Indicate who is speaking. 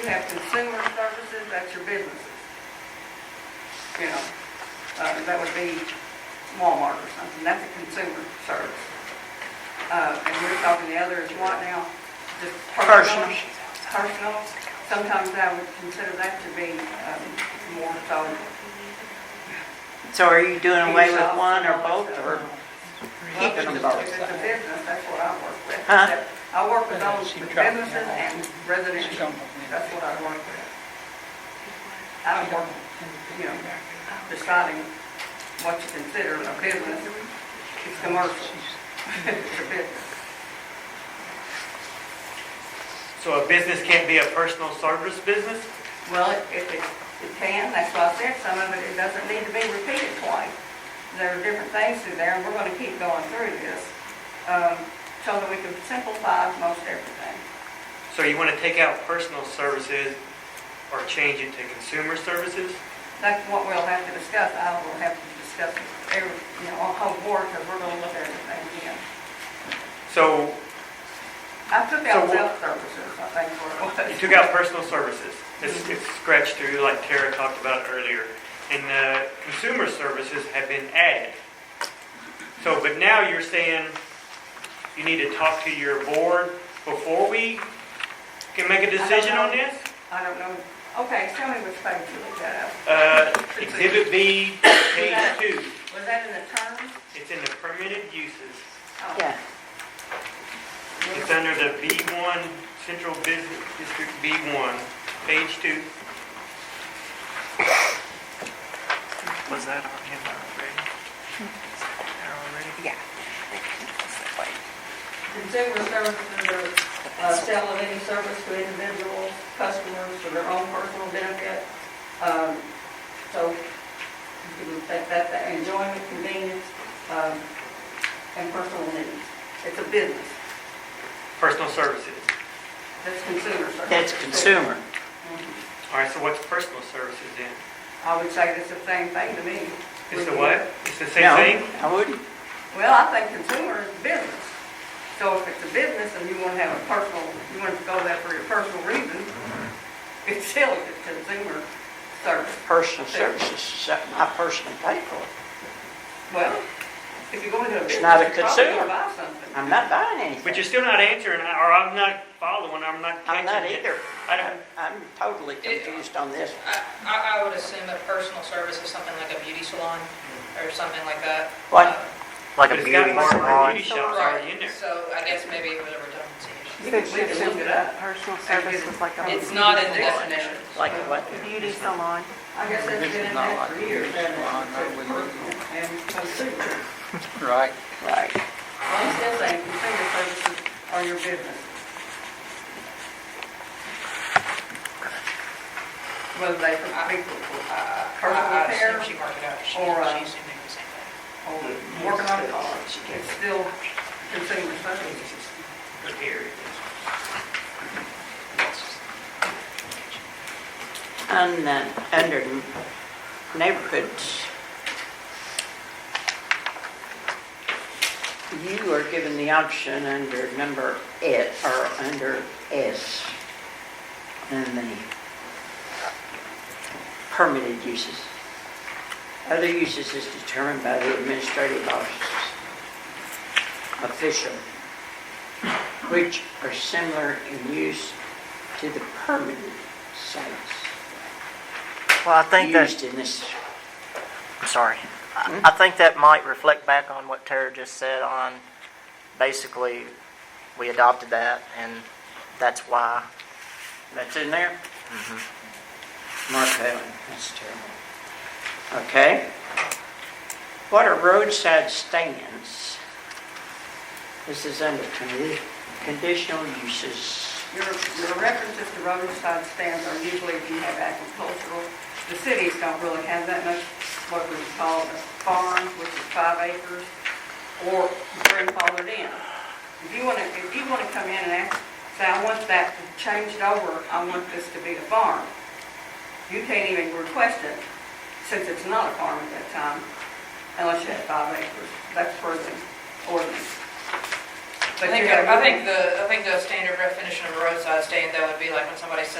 Speaker 1: You have consumer services, that's your businesses. You know, uh, that would be Walmart or something, that's a consumer service. Uh, and we're talking the other is what now? Just personal?
Speaker 2: Personal.
Speaker 1: Personal, sometimes I would consider that to be, um, more so.
Speaker 2: So are you doing away with one or both, or keeping them
Speaker 1: If
Speaker 2: both?
Speaker 1: it's a business, that's what I work with.
Speaker 2: Huh?
Speaker 1: I work with those
Speaker 3: She
Speaker 1: with
Speaker 3: dropped me
Speaker 1: businesses
Speaker 3: off.
Speaker 1: and residential, that's what I work with. I don't work, you know, deciding what you consider a business, it's commercial, it's a business.
Speaker 4: So a business can't be a personal service business?
Speaker 1: Well, it- if it, it can, that's why I said some of it, it doesn't need to be repeated twice. There are different things through there, and we're gonna keep going through this, um, so that we can simplify most everything.
Speaker 4: So you want to take out personal services or change it to consumer services?
Speaker 1: That's what we'll have to discuss, I will have to discuss every, you know, on whole board, because we're gonna look at everything again.
Speaker 4: So
Speaker 1: I took out
Speaker 4: So what-
Speaker 1: self-services, I think, for
Speaker 4: uh, you took out personal services. It's it's scratched through like Tara talked about earlier. And uh, consumer services have been added. So, but now you're saying you need to talk to your board before we can make a decision on this?
Speaker 1: I don't know, okay, tell me which page you looked at.
Speaker 4: Uh, Exhibit B, page two.
Speaker 1: Was that in the terms?
Speaker 4: It's in the permitted uses.
Speaker 1: Oh,
Speaker 2: Yeah,
Speaker 1: we're-
Speaker 4: It's under the B1, Central Business District B1, page two.
Speaker 3: Was that on him already? Is that there already?
Speaker 2: yeah.
Speaker 1: Consumer services are uh, sale of any service to individuals, customers for their own personal benefit. Um, So you can take that, that enjoyment, convenience, um, and personal needs. It's a business,
Speaker 4: Personal services.
Speaker 1: that's consumer services.
Speaker 2: That's consumer.
Speaker 1: Mhm.
Speaker 4: All right, so what's personal services then?
Speaker 1: I would say that's the same thing to me.
Speaker 4: It's the what? It's the
Speaker 2: Mm-hmm. No,
Speaker 4: same thing?
Speaker 2: I wouldn't.
Speaker 1: Well, I think consumer is business. So if it's a business and you want to have a personal, you want to go there for your personal reasons, it's still a consumer service.
Speaker 2: Personal services, is something I personally pay for.
Speaker 1: Well, if you go into a business,
Speaker 2: It's
Speaker 1: you're
Speaker 2: not a
Speaker 1: probably gonna
Speaker 2: consumer.
Speaker 1: buy something.
Speaker 2: I'm not buying anything.
Speaker 4: But you're still not answering, or I'm not following, I'm not
Speaker 2: I'm
Speaker 4: catching
Speaker 2: not
Speaker 4: it.
Speaker 2: either. I'm,
Speaker 4: I don't,
Speaker 2: I'm totally confused on this.
Speaker 5: I, I I would assume a personal service is something like a beauty salon or something like that.
Speaker 2: What?
Speaker 5: Uh,
Speaker 4: but it's got barber and beauty shops already in
Speaker 5: Right,
Speaker 4: there.
Speaker 5: so I guess maybe it was a redundancy issue.
Speaker 1: We can- we can look it up.
Speaker 6: Personal service was like a.
Speaker 5: It's not in the definition.
Speaker 2: Like what?
Speaker 6: Beauty salon.
Speaker 1: I guess that's been in there for years.
Speaker 3: This is not like this.
Speaker 1: that it's personal And consumer.
Speaker 3: Right.
Speaker 2: Right.
Speaker 1: I'm still saying consumer services are your business. Whether they for people,
Speaker 5: Uh, I-
Speaker 1: Personal
Speaker 5: I
Speaker 1: care
Speaker 5: assume she marked it out. She,
Speaker 1: or, uh,
Speaker 5: she assumed it was the same
Speaker 1: or
Speaker 5: thing.
Speaker 1: working on it, it's still consumer services.
Speaker 2: On, uh, under neighborhoods, you are given the option under number S, or under S, in the permitted uses. Other uses is determined by the administrative office official, which are similar in use to the permitted sites.
Speaker 7: Well, I think that,
Speaker 2: used in this.
Speaker 7: I'm sorry, I I think that might reflect back on what Tara just said on, basically, we adopted that, and that's why.
Speaker 2: That's in there? Mark Allen, that's terrible. Okay. What are roadside stands? This is under condi- conditional uses.
Speaker 1: Your, your references to roadside stands are usually if you have agricultural. The cities don't really have that much, what we call a farm, which is five acres, or grandfathered in. If you want to, if you want to come in and ask, say, I want that changed over, I want this to be a farm, you can't even request it, since it's not a farm at that time, unless you have five acres. That's for the ordinance.
Speaker 5: I
Speaker 1: But
Speaker 5: think,
Speaker 1: you have-
Speaker 5: I think the, I think the standard definition of a roadside stand, that would be like when somebody says